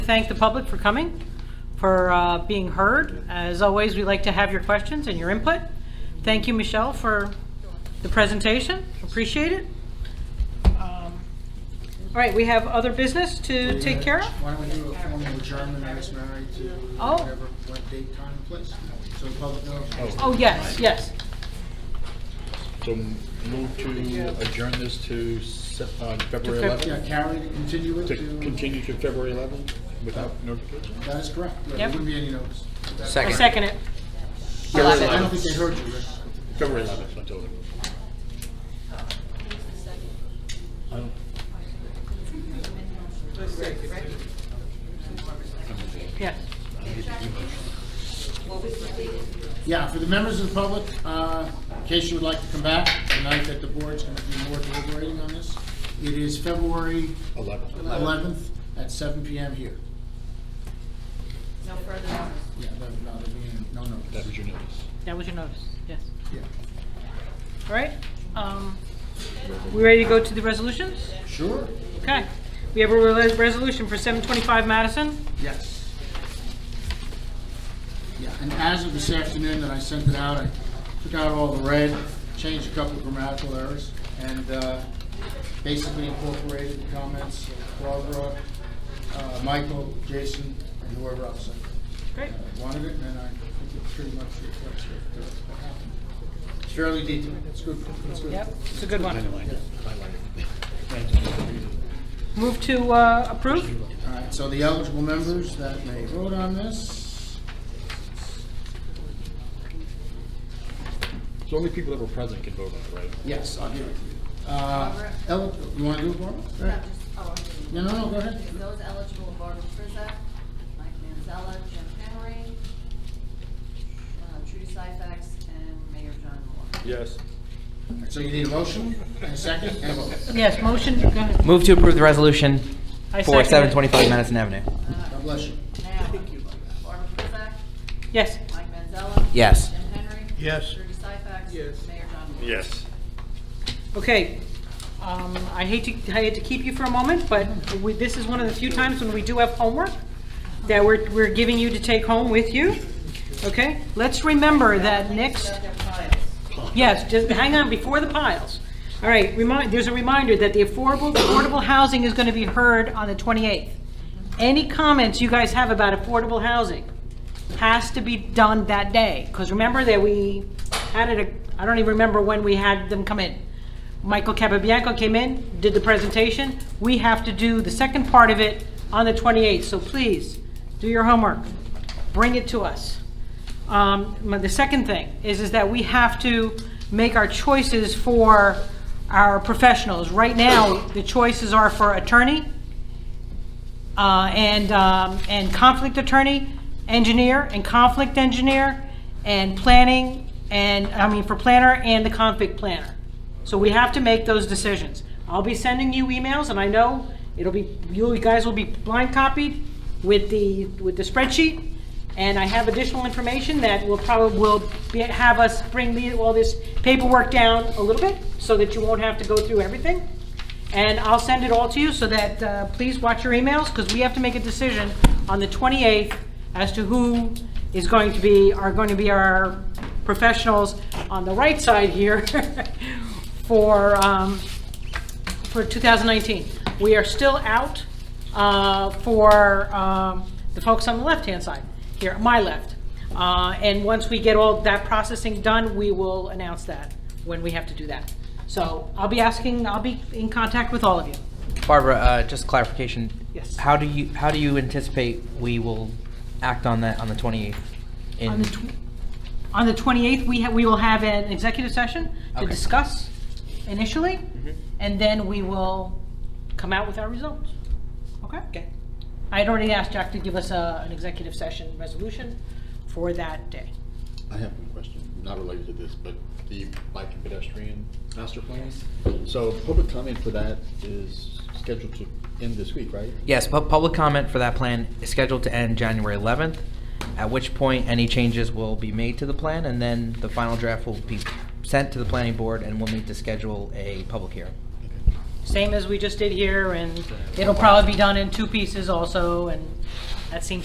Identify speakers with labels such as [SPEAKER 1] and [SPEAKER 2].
[SPEAKER 1] thank the public for coming, for uh, being heard. As always, we like to have your questions and your input. Thank you, Michelle, for the presentation. Appreciate it. Um, All right, we have other business to take care of?
[SPEAKER 2] Why don't we do a formal adjournment as married to
[SPEAKER 1] Oh.
[SPEAKER 2] whatever, what date, time, place, so the public knows.
[SPEAKER 1] Oh, yes, yes.
[SPEAKER 3] So move to adjourn this to Sep- uh, February
[SPEAKER 1] Feb-
[SPEAKER 2] Yeah,
[SPEAKER 3] 11th?
[SPEAKER 2] Carrie, to continue it
[SPEAKER 3] To
[SPEAKER 2] to,
[SPEAKER 3] continue to February 11th without notification?
[SPEAKER 2] that is correct. Yeah, There
[SPEAKER 1] Yep.
[SPEAKER 2] wouldn't be any notice.
[SPEAKER 1] I second it.
[SPEAKER 2] I don't think they heard you, Rick.
[SPEAKER 3] February 11th, I told him. I don't-
[SPEAKER 1] Yes.
[SPEAKER 2] Yeah, for the members of the public, uh, in case you would like to come back tonight that the board's going to be more deliberating on this, it is February
[SPEAKER 3] 11th.
[SPEAKER 2] 11th at 7 PM here.
[SPEAKER 4] No further notice.
[SPEAKER 2] Yeah, no, no, there'll be no no.
[SPEAKER 3] That was your notice.
[SPEAKER 1] That was your notice, yes.
[SPEAKER 2] Yeah.
[SPEAKER 1] All right. um, We ready to go to the resolutions?
[SPEAKER 2] Sure?
[SPEAKER 1] Okay. We have a re- resolution for 725 Madison.
[SPEAKER 2] Yes. Yeah, and as of this afternoon that I sent it out, I took out all the red, changed a couple of grammatical errors, and uh, basically incorporated the comments of Barbara, uh, Michael, Jason, and whoever else uh,
[SPEAKER 1] Great.
[SPEAKER 2] wanted it, and I think it pretty much reflects what what happened. It's fairly detailed, it's good, it's good.
[SPEAKER 1] Yep, it's a good one.
[SPEAKER 3] Highlight it. Highlight it.
[SPEAKER 1] Move to uh, approve?
[SPEAKER 2] All right, so the eligible members that may vote on this,
[SPEAKER 3] So only people that were present can vote on it, right?
[SPEAKER 2] Yes, I'll give it to you. Uh, El, you wanna do it, Barbara? Go
[SPEAKER 4] No,
[SPEAKER 2] ahead.
[SPEAKER 4] just, oh, I'm
[SPEAKER 2] No, no, no, go ahead.
[SPEAKER 4] doing it. Those eligible, Barbara Frizzak, Mike Manzella, Jim Henry, uh, Trudy Syfax, and Mayor John Moore.
[SPEAKER 3] Yes.
[SPEAKER 2] So you need a motion, and a second, and a vote.
[SPEAKER 1] Yes, motion, go ahead.
[SPEAKER 5] Move to approve the resolution
[SPEAKER 1] I
[SPEAKER 5] for
[SPEAKER 1] second it.
[SPEAKER 5] 725 Madison Avenue.
[SPEAKER 2] God bless you.
[SPEAKER 4] Now, Barbara Frizzak,
[SPEAKER 1] Yes,
[SPEAKER 4] Mike Manzella.
[SPEAKER 5] Yes.
[SPEAKER 4] Jim Henry. Yes. Trudy Syfax. Yes. Mayor John Moore.
[SPEAKER 3] Yes.
[SPEAKER 1] okay. Um, I hate to, I hate to keep you for a moment, but we- this is one of the few times when we do have homework that we're, we're giving you to take home with you. Okay, let's remember that next,
[SPEAKER 4] Got their files.
[SPEAKER 1] yes, just hang on, before the piles. All right, remind, there's a reminder that the affordable, affordable housing is going to be heard on the 28th. Any comments you guys have about affordable housing has to be done that day, because remember that we had it, a- I don't even remember when we had them come in. Michael Capabianco came in, did the presentation. We have to do the second part of it on the 28th, so please, do your homework. Bring it to us. Um, my- The second thing is, is that we have to make our choices for our professionals. Right now, the choices are for attorney, uh, and, um, and conflict attorney, engineer, and conflict engineer, and planning, and, I mean, for planner and the conflict planner. So we have to make those decisions. I'll be sending you emails, and I know it'll be, you guys will be blind copied with the, with the spreadsheet, and I have additional information that will probably, will be- have us bring the- all this paperwork down a little bit, so that you won't have to go through everything. And I'll send it all to you so that, uh, please watch your emails, because we have to make a decision on the 28th as to who is going to be, are going to be our professionals on the right side here for, um, for 2019. We are still out uh, for um, the folks on the left-hand side, here, my left. Uh, And once we get all that processing done, we will announce that, when we have to do that. So I'll be asking, I'll be in contact with all of you.
[SPEAKER 5] Barbara, uh, just clarification.
[SPEAKER 1] Yes.
[SPEAKER 5] How do you, how do you anticipate we will act on that on the
[SPEAKER 1] On
[SPEAKER 5] 28th?
[SPEAKER 1] the
[SPEAKER 5] In,
[SPEAKER 1] tw- On the 28th, we have, we will have an executive session to
[SPEAKER 5] Okay.
[SPEAKER 1] discuss initially, and then we will come out with our results. Okay? Okay. I had already asked Jack to give us a, an executive session resolution for that day.
[SPEAKER 3] I have one question, not related to this, but the bike and pedestrian master plan. So public comment for that is scheduled to end this week, right?
[SPEAKER 5] yes, pu- public comment for that plan is scheduled to end January 11th, at which point any changes will be made to the plan, and then the final draft will be sent to the planning board, and we'll need to schedule a public hearing.
[SPEAKER 1] same as we just did here, and it'll probably be done in two pieces also, and that seems